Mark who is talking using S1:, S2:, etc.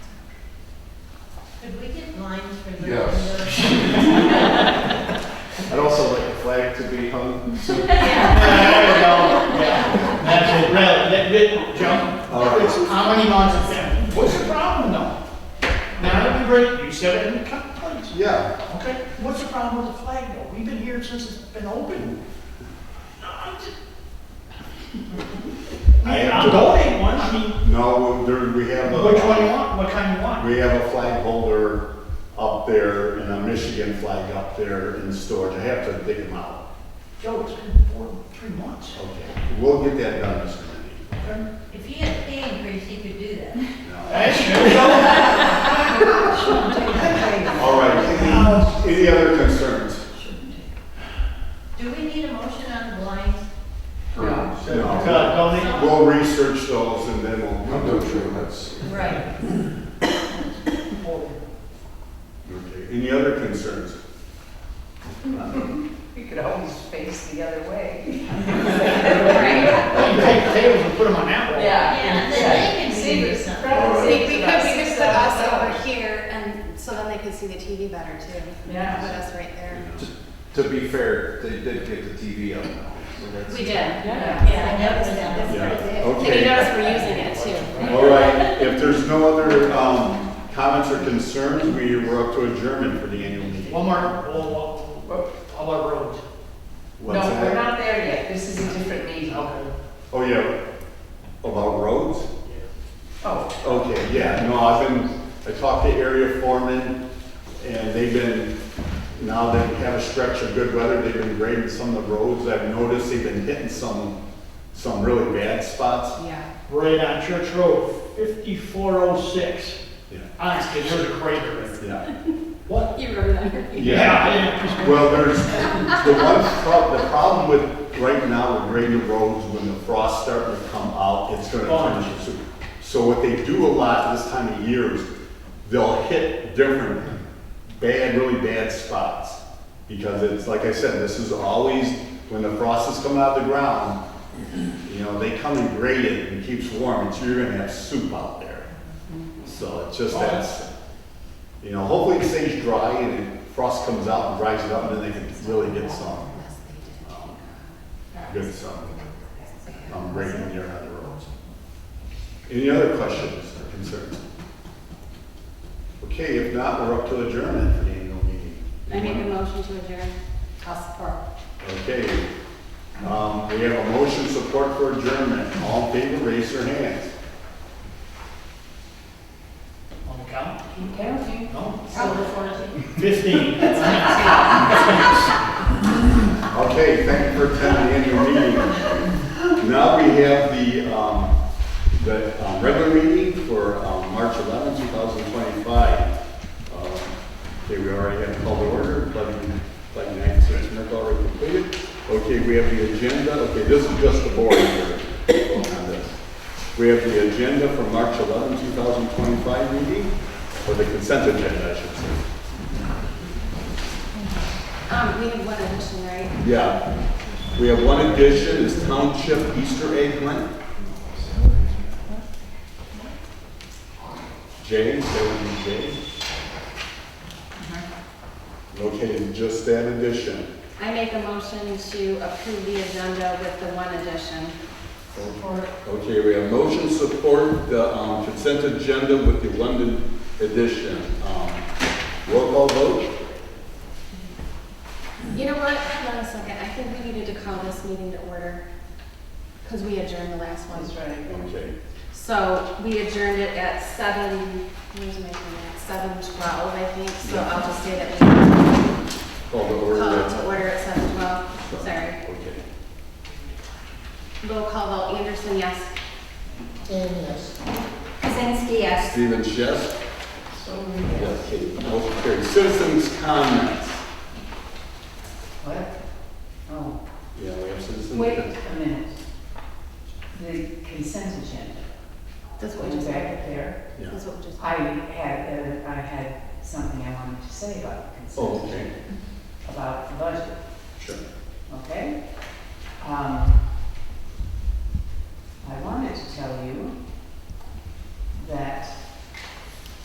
S1: line through the
S2: Yes.
S1: window.
S3: I'd also like the flag to be hung.
S1: Yeah.
S4: That's it, really, that, that, Joe,
S3: All right.
S4: it's comedy nonsense. What's the problem though? Now, everybody, you said it in the complaints,
S3: Yeah,
S4: okay? What's the problem with the flag though? We've been here since it's been open. No, I'm just- I mean, I'm donating one, I mean,
S3: no, there, we have a.
S4: which one you want, what kind you want?
S3: We have a flag holder up there and a Michigan flag up there in storage. I have to dig them out.
S4: Joe, it's been four, three months.
S3: Okay, we'll get that done, Mr. Manning.
S4: okay?
S1: If he had pay increase, he could do that.
S4: That's true, Joe.
S3: All right, any, any other concerns?
S1: Do we need a motion on the blinds?
S4: God,
S3: No.
S4: donate.
S3: We'll research those and then we'll.
S2: Window treatments.
S1: Right.
S3: Okay, Any other concerns?
S5: You could always face the other way.
S1: Right.
S4: You take the tables and put them on that wall.
S1: Yeah, then they can
S5: See,
S1: see this something.
S5: right, see,
S6: See, we could, we could put us over here and, so then they could see the TV better too.
S5: Yeah.
S6: Put us right there.
S7: To be fair, they did get the TV up now, so that's.
S6: We did.
S5: Yeah.
S1: Yeah, I noticed that.
S3: Yeah,
S6: And you notice
S3: okay.
S6: we're using it too.
S3: All right, if there's no other, um, comments or concerns, we, we're up to adjournment for the annual meeting.
S4: One more, all, all- all our roads.
S5: No,
S3: What's
S5: we're
S3: that?
S5: not there yet, this is a different meeting.
S4: Okay.
S3: Oh, yeah, about roads?
S5: Oh,
S3: Okay, yeah, no, I've been, I talked to area foremen, and they've been, now that we have a stretch of good weather, they've been grading some of the roads. I've noticed they've been hitting some, some really bad spots.
S6: Yeah.
S4: Right on Church Road, fifty-four oh six.
S3: Yeah.
S4: Honestly, there's a crater in there.
S3: Yeah.
S4: What?
S6: You remember that?
S4: Yeah.
S3: Well, there's, the one, prob- the problem with, right now, with grading roads, when the frost's starting to come out, it's gonna turn into soup. So what they do a lot this time of year is, they'll hit different, bad, really bad spots. Because it's, like I said, this is always, when the frost is coming out of the ground, you know, they come and grade it and it keeps warm, and so you're gonna have soup out there. So it's just that's, you know, hopefully it stays dry and it- frost comes out and dries it up, and then they can really get some,
S6: Yes, they
S3: um, good some,
S6: did.
S3: um, rain there on the roads. Any other questions or concerns? Okay, if not, we're up to adjournment for the annual meeting.
S6: I make a motion to adjourn. I'll support.
S3: Okay, um, we have a motion support for adjournment. All in favor, raise your hands.
S4: On the count?
S5: you counting?
S4: No.
S1: Silver fourteen.
S4: Fifteen.
S3: Okay, thank you for attending the annual meeting. Now we have the, um, the um, regular meeting for, um, March 11, 2025. Um, Okay, we already have called the order, plugging, plugging nine, six minutes already completed. Okay, we have the agenda, okay, this is just the board here. on this. We have the agenda for March 11, 2025 meeting, or the consent agenda, I should say.
S6: Um, we have one addition, right?
S3: Yeah, we have one addition, it's Township Easter Egg Hunt. James, that would be James. Okay, just that addition.
S6: I make a motion to approve the agenda with the one addition.
S1: Support.
S3: Okay, we have motion support, the um, consent agenda with the London edition. Um, Roll call vote?
S6: You know what, hold on a second, I think we needed to call this meeting to order, because we adjourned the last one.
S5: That's right.
S3: Okay,
S6: So we adjourned it at seven, where's my phone at, seven twelve, I think, so I'll just say that
S3: call the
S6: we
S3: order.
S6: called to order at seven twelve, sorry.
S3: Okay.
S6: Roll call vote, Anderson, yes.
S1: Yes.
S6: Kazinsky, yes.
S3: Stephen Chess?
S1: So,
S3: Yes, Katie. Motion carried. Citizens' comments.
S5: What? Oh,
S3: Yeah, we have citizens.
S5: wait a minute. The consent agenda,
S6: That's what we
S5: going
S6: just,
S5: back
S6: that's
S5: up there,
S3: Yeah.
S6: what we just.
S5: I had, uh, I had something I wanted to say about the
S3: Oh,
S5: consent
S3: okay,
S5: agenda, about the budget.
S3: sure.
S5: okay? Um, I wanted to tell you that